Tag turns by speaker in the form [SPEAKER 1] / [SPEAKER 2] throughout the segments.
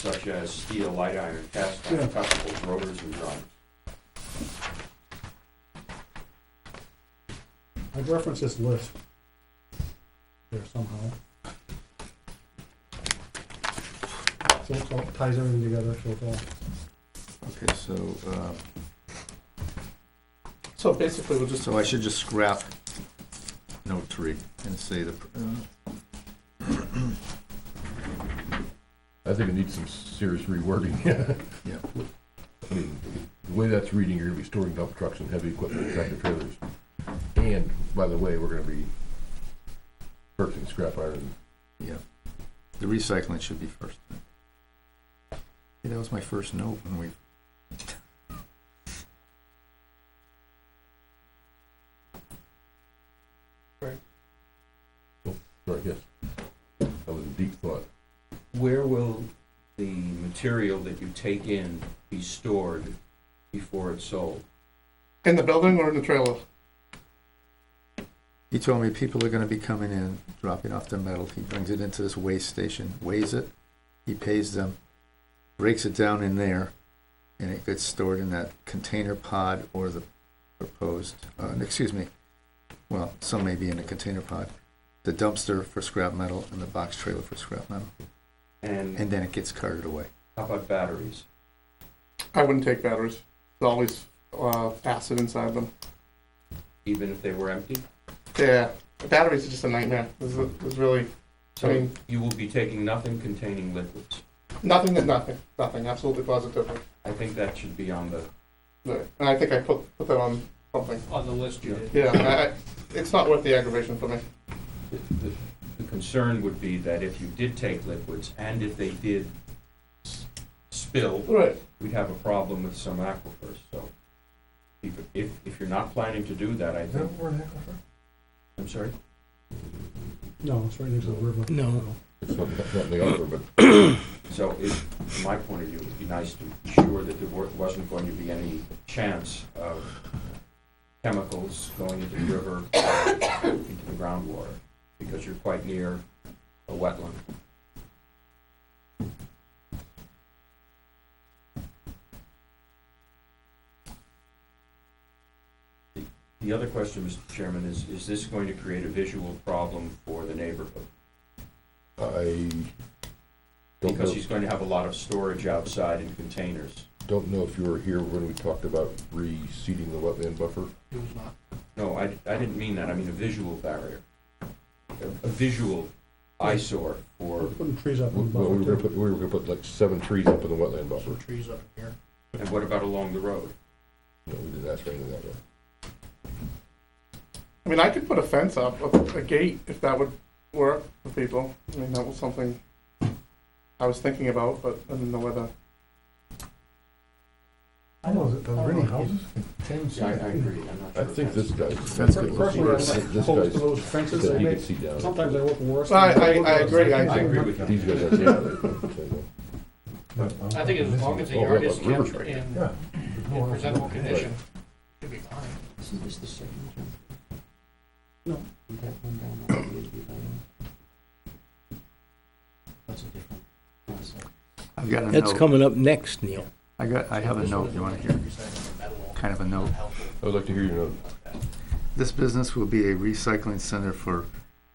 [SPEAKER 1] such as steel, light iron, cast
[SPEAKER 2] Yeah.
[SPEAKER 1] iron, cutlables, rotors, and drums.
[SPEAKER 2] I'd reference this list there somehow. So it all ties everything together, so it's all,
[SPEAKER 3] Okay, so, uh,
[SPEAKER 4] So basically, we'll just,
[SPEAKER 3] so I should just scrap note three and say the, uh,
[SPEAKER 5] I think it needs some serious rewording.
[SPEAKER 3] yeah,
[SPEAKER 5] I mean, the way that's reading, you're gonna be storing dump trucks and heavy equipment, tractor trailers. And, by the way, we're gonna be purchasing scrap iron.
[SPEAKER 3] yeah. The recycling should be first. Yeah, that was my first note when we,
[SPEAKER 5] Sorry, yes. That was a deep thought.
[SPEAKER 1] Where will the material that you take in be stored before it's sold?
[SPEAKER 4] in the building or in the trailer?
[SPEAKER 3] he told me people are gonna be coming in, dropping off their metal. He brings it into this waste station, weighs it, he pays them, breaks it down in there, and it gets stored in that container pod or the proposed, uh, excuse me, well, some may be in the container pod, the dumpster for scrap metal and the box trailer for scrap metal.
[SPEAKER 1] And
[SPEAKER 3] and then it gets carted away.
[SPEAKER 1] how about batteries?
[SPEAKER 4] I wouldn't take batteries. There's always uh, acid inside them.
[SPEAKER 1] Even if they were empty?
[SPEAKER 4] Yeah, batteries are just a nightmare. There's, there's really
[SPEAKER 1] So
[SPEAKER 4] mean-
[SPEAKER 1] you will be taking nothing containing liquids.
[SPEAKER 4] nothing is nothing. Nothing, absolutely positively.
[SPEAKER 1] I think that should be on the,
[SPEAKER 4] Right. And I think I put, put that on something.
[SPEAKER 6] on the list you did.
[SPEAKER 4] Yeah, I, I, it's not worth the aggravation for me.
[SPEAKER 1] the, the- the concern would be that if you did take liquids and if they did s- spill,
[SPEAKER 4] Right.
[SPEAKER 1] we'd have a problem with some aquifers, so. If, if, if you're not planning to do that, I think, I'm sorry?
[SPEAKER 2] no, it's right next to the river.
[SPEAKER 6] No.
[SPEAKER 5] It's not, that's not in the offer, but
[SPEAKER 1] So it, from my point of view, it'd be nice to be sure that there wa- wasn't going to be any chance of chemicals going into the river, into the groundwater, because you're quite near a wetland. The- The other question, Mr. Chairman, is, is this going to create a visual problem for the neighborhood?
[SPEAKER 5] I don't
[SPEAKER 1] Because
[SPEAKER 5] know,
[SPEAKER 1] he's going to have a lot of storage outside in containers.
[SPEAKER 5] don't know if you were here when we talked about reseeding the wetland buffer.
[SPEAKER 1] No, I, I didn't mean that, I mean a visual barrier. A a visual eyesore
[SPEAKER 2] We're
[SPEAKER 1] for,
[SPEAKER 2] Putting trees up
[SPEAKER 5] We-
[SPEAKER 2] in the
[SPEAKER 5] Well, we were
[SPEAKER 2] buffer
[SPEAKER 5] gonna
[SPEAKER 2] too.
[SPEAKER 5] put, we were gonna put like seven trees up in the wetland buffer.
[SPEAKER 6] Trees up in here.
[SPEAKER 1] and what about along the road?
[SPEAKER 5] No, we didn't ask for anything that way.
[SPEAKER 4] I mean, I could put a fence up, a, a gate, if that would work for people. I mean, that was something I was thinking about, but I didn't know whether.
[SPEAKER 2] I know, there are any houses?
[SPEAKER 1] Yeah, I, I agree, I'm not sure.
[SPEAKER 5] I think this guy, this
[SPEAKER 3] That's good.
[SPEAKER 2] Personally,
[SPEAKER 5] guy's-
[SPEAKER 2] I'm like, opposed
[SPEAKER 5] this
[SPEAKER 2] to
[SPEAKER 5] guy's,
[SPEAKER 2] those fences
[SPEAKER 5] said
[SPEAKER 2] they
[SPEAKER 5] he could
[SPEAKER 2] make,
[SPEAKER 5] see down.
[SPEAKER 2] sometimes they look worse.
[SPEAKER 4] No, I-
[SPEAKER 2] than-
[SPEAKER 4] I- I agree, I
[SPEAKER 1] I agree with
[SPEAKER 5] These
[SPEAKER 1] you.
[SPEAKER 5] guys are down.
[SPEAKER 6] I think as long as the
[SPEAKER 5] Oh,
[SPEAKER 6] yard
[SPEAKER 5] yeah,
[SPEAKER 6] is
[SPEAKER 5] but river
[SPEAKER 6] kept
[SPEAKER 5] tree.
[SPEAKER 6] in in presentable condition, should be fine.
[SPEAKER 1] Isn't this the same?
[SPEAKER 2] No.
[SPEAKER 1] That's a different concept.
[SPEAKER 3] I've got a
[SPEAKER 7] That's
[SPEAKER 3] note.
[SPEAKER 7] coming up next, Neil.
[SPEAKER 3] I got. I have a note. You want to hear? Kind of a note.
[SPEAKER 5] I would like to hear your note.
[SPEAKER 3] This business will be a recycling center for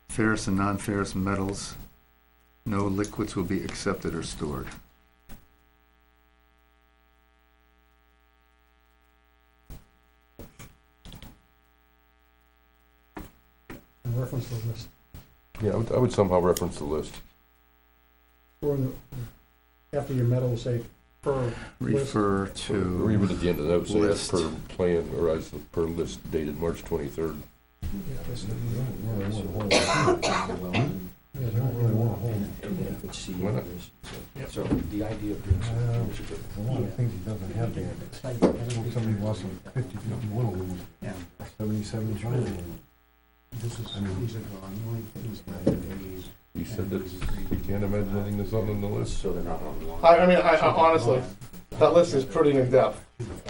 [SPEAKER 3] ferrous and non-ferrous metals. No liquids will be accepted or stored.
[SPEAKER 2] And reference the list.
[SPEAKER 5] Yeah, I would, I would somehow reference the list.
[SPEAKER 2] Or in the, after your metal, say, per,
[SPEAKER 3] Refer
[SPEAKER 5] Or even at
[SPEAKER 3] to.
[SPEAKER 5] the end of the note, say as
[SPEAKER 3] List.
[SPEAKER 5] per plan, or as the per list dated March twenty-third. Why not?
[SPEAKER 1] So the idea of doing something.
[SPEAKER 8] A lot of things he doesn't have there. Somebody wants some fifty, fifty-one of them.
[SPEAKER 6] Yeah.
[SPEAKER 8] Seventy, seventy-five of them.
[SPEAKER 6] This is,
[SPEAKER 8] I mean-
[SPEAKER 6] these are the only things that they-
[SPEAKER 5] You said that you can't imagine anything that's not on the list.
[SPEAKER 1] So they're not on the line.
[SPEAKER 4] I, I mean, I, I honestly, that list is pretty in depth.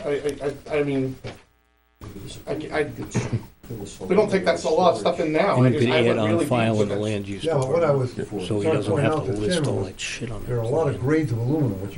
[SPEAKER 4] I, I, I, I mean, I, ca- I, We don't take that, so a lot of stuff in now. Oh,
[SPEAKER 7] And
[SPEAKER 4] I
[SPEAKER 7] you
[SPEAKER 4] just-
[SPEAKER 7] could
[SPEAKER 4] I would
[SPEAKER 7] add on
[SPEAKER 4] really be
[SPEAKER 7] file in the
[SPEAKER 4] looking-
[SPEAKER 7] land use
[SPEAKER 2] Yeah, but what I
[SPEAKER 7] department,
[SPEAKER 2] was,
[SPEAKER 7] so he
[SPEAKER 2] trying to
[SPEAKER 7] doesn't
[SPEAKER 2] point
[SPEAKER 7] have
[SPEAKER 2] out
[SPEAKER 7] to
[SPEAKER 2] to
[SPEAKER 7] list
[SPEAKER 2] Tim
[SPEAKER 7] all
[SPEAKER 2] was
[SPEAKER 7] that shit on there.
[SPEAKER 2] there are a lot of grades of aluminum, which